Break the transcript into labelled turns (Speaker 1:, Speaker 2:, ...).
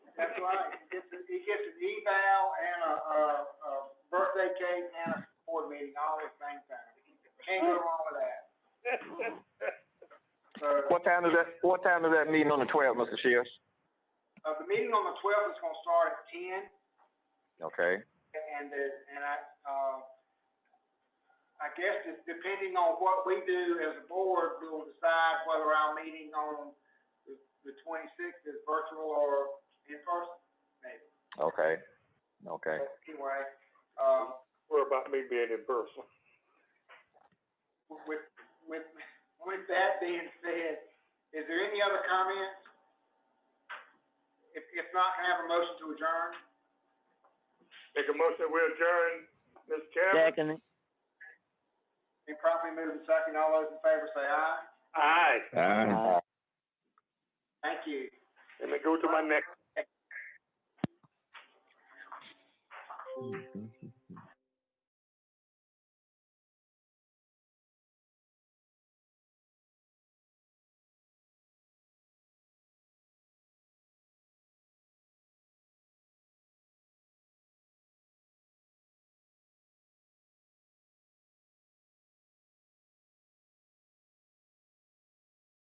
Speaker 1: right, he gets, a- he gets an eval and a, a, a birthday cake and a board meeting all at the same time. Can't go wrong with that, so.
Speaker 2: What time is that, what time is that meeting on the twelfth, Mr. Shields?
Speaker 1: Uh, the meeting on the twelfth is gonna start at ten,
Speaker 2: Okay,
Speaker 1: and the, and I, uh, I guess it's depending on what we do as a board, we will decide whether our meeting on the, the twenty-sixth is virtual or in person, maybe.
Speaker 2: okay, okay.
Speaker 1: But Anyway, um,
Speaker 3: What about me being in person?
Speaker 1: with, with, with that being said, is there any other comments? If, if not, can I have a motion to adjourn?
Speaker 3: Make a motion, we adjourn, Mr. Chairman?
Speaker 4: Second,
Speaker 1: Been properly moved and seconded, all those in favor say aye.
Speaker 3: Aye,
Speaker 4: Aye.
Speaker 1: Thank you.
Speaker 3: and then go to my next
Speaker 2: Mhm.